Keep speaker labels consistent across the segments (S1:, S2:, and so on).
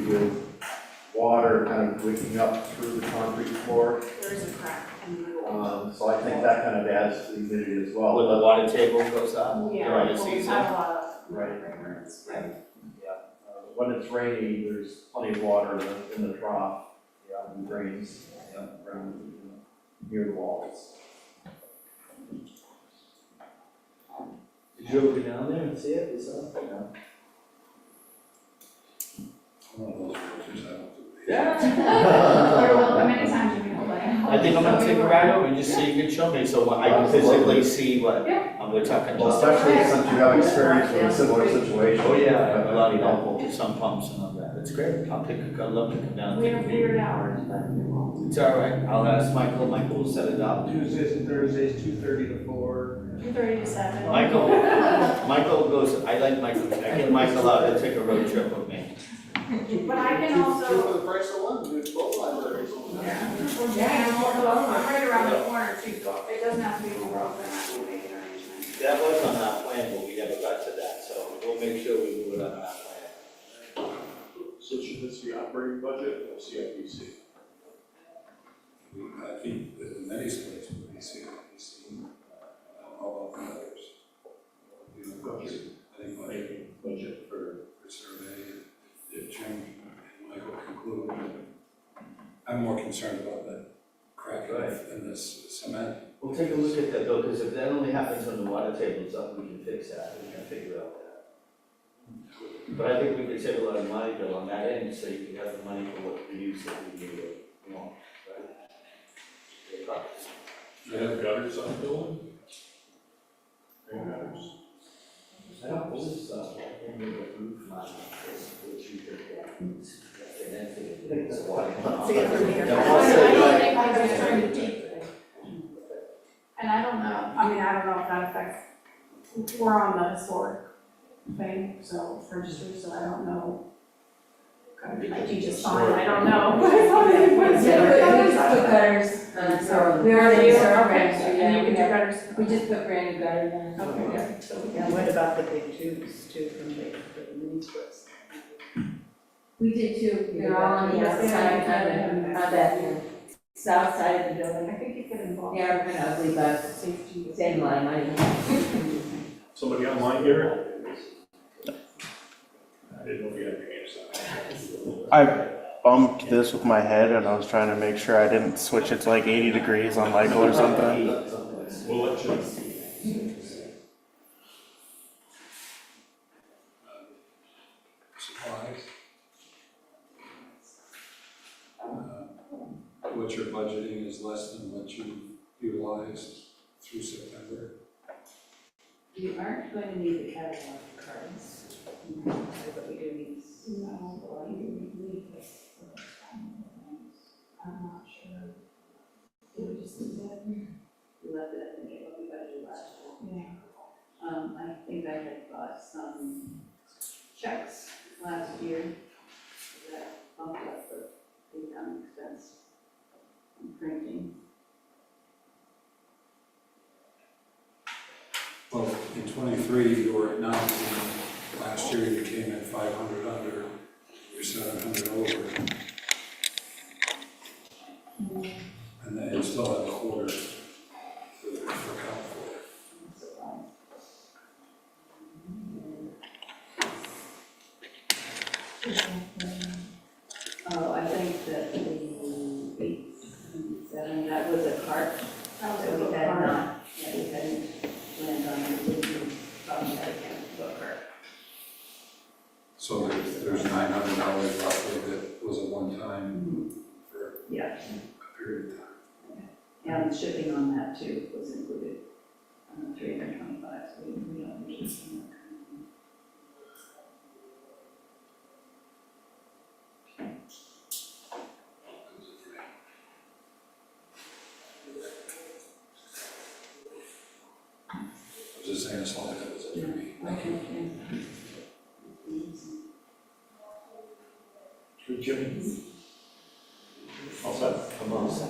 S1: with water kind of wicking up through the concrete floor.
S2: There is a crack in the wall.
S1: Um, so I think that kind of adds to the humidity as well.
S3: When the water table goes up
S2: Oh, Yeah,
S3: Uh, during the
S2: well, we've
S3: season.
S2: had a lot of
S1: Right.
S2: murmurs,
S1: Right.
S2: right?
S1: Uh, When it's raining, there's plenty of water in the- in the trough, yeah, and drains, yeah, around, you know, near the walls.
S3: Did you ever go down there and see it yourself?
S4: One of those realtors, I don't do these.
S3: Yeah.
S2: You're welcome anytime, Jimmy, hold on.
S3: I think I'm gonna take a ride over and just see you can show me, so I can physically see what um, we're talking
S1: Well,
S3: about.
S1: especially since you have experience with a similar situation.
S3: Oh, yeah, a
S1: That
S3: lot
S1: might
S3: of
S1: be helpful.
S3: helpful, some pumps and all that, it's great, I'll pick, I'd love to come down.
S2: We have weird hours, but we won't.
S3: It's all right, I'll ask Michael, Michael will set it up.
S5: Tuesdays and Thursdays, two thirty to four.
S2: Two thirty to seven.
S3: Michael, Michael goes, I like Michael, I get Michael out to take a road trip with me.
S2: But I can also,
S5: for the price of one, do both libraries.
S2: yeah, and I'm also, I'm right around the corner too, so it doesn't have to be over, but I will make an arrangement.
S3: That was on our plan, but we never got to that, so we'll make sure we move it on our plan.
S5: So should this be operating budget or CIPC?
S4: I think that in many states, we see, we see, all of the others. You know, budget, I think budget
S5: Budget for.
S4: for survey, if Jim and Michael conclude, I'm more concerned about the crack in this cement.
S3: We'll take a look at that though, because if that only happens when the water table's up, we can fix that, we can figure out that. But I think we could save a lot of money though on that end, so you can have the money for what we use that we need, it, you know, right?
S4: Do you have gutters on the building?
S3: I don't believe so, I think uh, the roof line is what you could, yeah, and then figure it's water.
S2: I don't
S3: uh,
S2: think I was trying to take it. And I don't know, I mean, I don't know if that affects, we're on the historic thing, so registry, so I don't know. Kind of, Like you just fine, I don't know. What's
S6: Yeah,
S2: it-
S6: but
S2: what
S6: we
S2: is
S6: just put
S2: that?
S6: gutters, um, so.
S2: Where are you?
S6: things are
S2: Okay,
S6: fresh,
S2: so
S6: yeah,
S2: you can
S6: we
S2: do
S6: have-
S2: better.
S6: We just put brand new gutters in.
S2: Okay, yeah.
S7: Yeah, what about the big tubes too from the, the mini splits?
S6: We did too,
S7: You
S6: they're all on the
S2: Yeah,
S6: outside,
S2: yeah,
S6: on the,
S2: yeah.
S6: on that south side of the
S2: I
S6: building.
S2: think you could involve
S6: They are kind of ugly, but
S2: safety.
S6: same line, I
S5: Somebody online here? I didn't know if you had your hands
S8: I bumped this with my head and I was trying to make sure I didn't switch it to like 80 degrees on Michael or something.
S5: up. We'll let you.
S4: Supplies? Uh, What you're budgeting is less than what you utilized through September?
S7: You aren't going to need the catalog cards, but we do need.
S2: No, well, you can leave this. I'm not sure. Did we just do that?
S7: We left it, I think, at what we budgeted last year.
S2: Yeah.
S7: Um, I think I had bought some checks last year that bumped up the income expense and printing.
S4: Well, in twenty-three, you were at nine, last year you came in five hundred under, you're seven hundred over. And then you still have a quarter to account for.
S7: Oh, I think that the eight, and seven, that was a cart,
S2: That was
S7: so
S2: a
S7: we
S2: little
S7: had
S2: hard.
S7: not, yeah, we hadn't planned on it, we probably had a book cart.
S4: So there's, there's nine hundred dollars roughly that was a one-time for
S7: Yeah,
S4: a period of time.
S7: and shipping on that too was included, um, three hundred twenty-five, so we, we don't need to.
S4: I was just saying, as long as it was a three.
S5: Good, Jimmy. All set? I'm all set.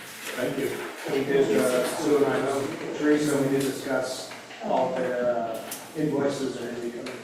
S5: Thank you.
S9: We did, uh, Sue and I know, Teresa, we did discuss all their uh, invoices that are gonna be coming uh,